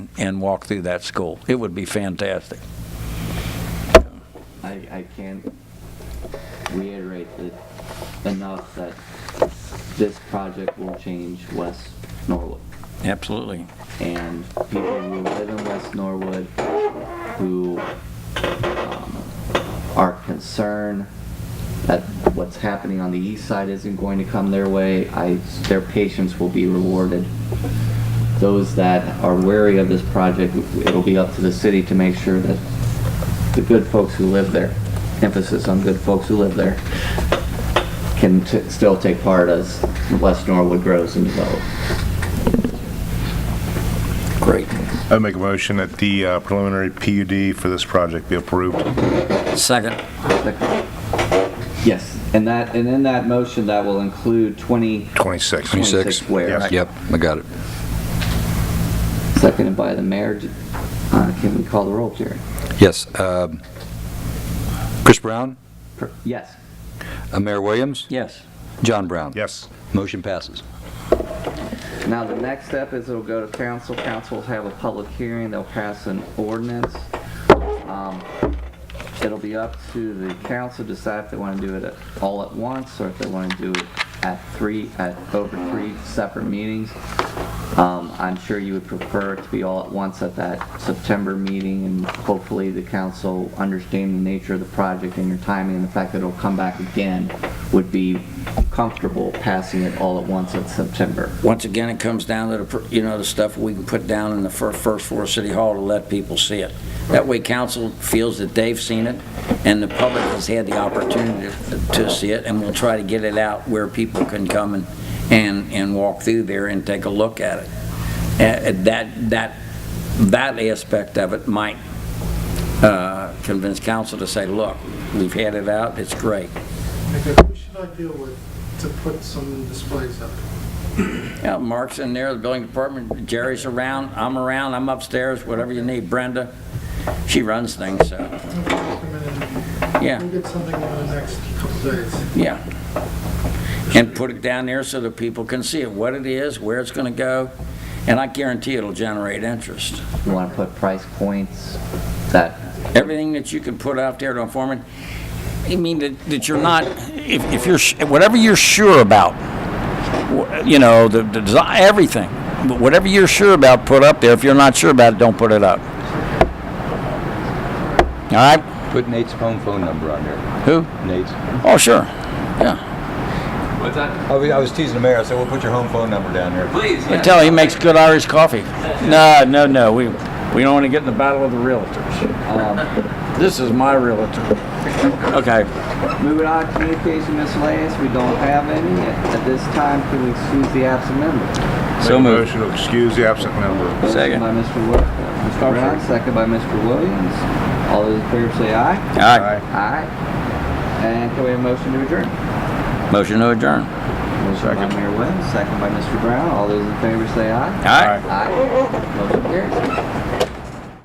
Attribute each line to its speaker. Speaker 1: and walk through that school. It would be fantastic.
Speaker 2: I, I can't reiterate it enough that this project will change West Norwood.
Speaker 1: Absolutely.
Speaker 2: And people who live in West Norwood who um, are concerned that what's happening on the east side isn't going to come their way, I, their patience will be rewarded. Those that are wary of this project, it'll be up to the city to make sure that the good folks who live there, emphasis on good folks who live there, can t- still take part as West Norwood grows and develops.
Speaker 1: Great.
Speaker 3: I make a motion that the uh, preliminary PUD for this project be approved.
Speaker 1: Second.
Speaker 2: Yes, and that, and in that motion, that will include 20,
Speaker 3: 26.
Speaker 2: 26 square.
Speaker 3: Yes.
Speaker 4: Yep, I got it.
Speaker 2: seconded by the mayor. Uh, Can we call the roll, Jerry?
Speaker 4: Yes. um, Chris Brown,
Speaker 2: Per- Yes.
Speaker 4: uh, Mayor Williams,
Speaker 1: Yes.
Speaker 4: John Brown.
Speaker 3: Yes.
Speaker 4: Motion passes.
Speaker 2: Now, the next step is it'll go to council. Council will have a public hearing. They'll pass an ordinance. Um, It'll be up to the council to decide if they want to do it at- all at once or if they want to do it at three, at over three separate meetings. Um, I'm sure you would prefer it to be all at once at that September meeting and hopefully the council understanding the nature of the project and your timing and the fact that it'll come back again would be comfortable passing it all at once at September.
Speaker 1: Once again, it comes down to the, fir- you know, the stuff we can put down in the fir- first floor of City Hall to let people see it. That way council feels that they've seen it and the public has had the opportunity to see it and we'll try to get it out where people can come and, and, and walk through there and take a look at it. Uh, uh, That, that, that aspect of it might uh, convince council to say, look, we've had it out, it's great.
Speaker 5: Okay, who should I deal with to put some displays up?
Speaker 1: Yeah, Mark's in there, the building department, Jerry's around, I'm around, I'm upstairs, whatever you need, Brenda, she runs things, so,
Speaker 5: Okay, come in and-
Speaker 1: Yeah.
Speaker 5: We'll get something in the next couple days.
Speaker 1: yeah. And put it down there so that people can see it, what it is, where it's gonna go, and I guarantee it'll generate interest.
Speaker 2: You want to put price points that,
Speaker 1: Everything that you can put out there to inform it, I mean, that, that you're not, if, if you're, s- whatever you're sure about, wh- you know, the, the, desi- everything, but whatever you're sure about, put up there, if you're not sure about it, don't put it up. All right?
Speaker 4: Put Nate's home phone number on there.
Speaker 1: Who?
Speaker 4: Nate's.
Speaker 1: Oh, sure. Yeah.
Speaker 4: I was- Oh, I was teasing the mayor. I said, "We'll put your home phone number down there."
Speaker 6: Please,
Speaker 1: I tell him he makes good Irish coffee. No, no, no. We we don't want to get in the battle of the realtors.
Speaker 2: um,
Speaker 1: This is my realtor. Okay.
Speaker 2: moving on, communication miscellaneous, we don't have any. At this time, can we excuse the absent member?
Speaker 3: Make
Speaker 4: So
Speaker 3: a
Speaker 4: moved.
Speaker 3: Motion to excuse the absent member.
Speaker 1: Second.
Speaker 2: Motion By Mr. Wo- uh, Mr. Brown, second by Mr. Williams. All those in favor say aye.
Speaker 1: All right.
Speaker 2: Aye. And can we have a motion to adjourn?
Speaker 1: Motion to adjourn.
Speaker 2: Motion by
Speaker 3: Second.
Speaker 2: Mayor Williams, second by Mr. Brown. All those in favor say aye.
Speaker 1: All right.
Speaker 2: Aye. Motion carries.